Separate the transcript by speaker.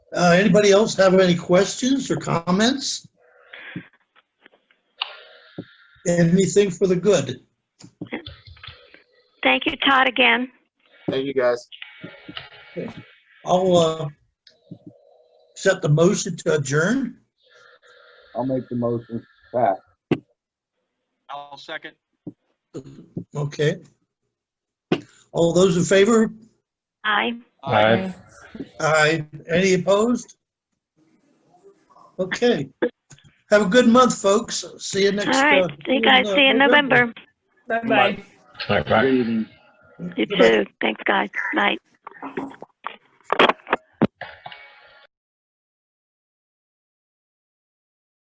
Speaker 1: Uh, Anybody else have any questions or comments? Anything for the good?
Speaker 2: Thank you, Todd, again.
Speaker 3: Thank you, guys.
Speaker 1: I'll uh, accept the motion to adjourn.
Speaker 3: I'll make the motion. Pat.
Speaker 4: I'll second.
Speaker 1: Okay. All those in favor?
Speaker 2: Aye.
Speaker 4: Aye.
Speaker 1: Aye. Any opposed? Okay. Have a good month, folks. See you
Speaker 2: All
Speaker 1: next.
Speaker 2: right,
Speaker 1: uh,
Speaker 2: you guys see you in November.
Speaker 5: Bye-bye.
Speaker 6: All right, bye.
Speaker 3: Good evening.
Speaker 2: You too. Thanks, guys. Bye.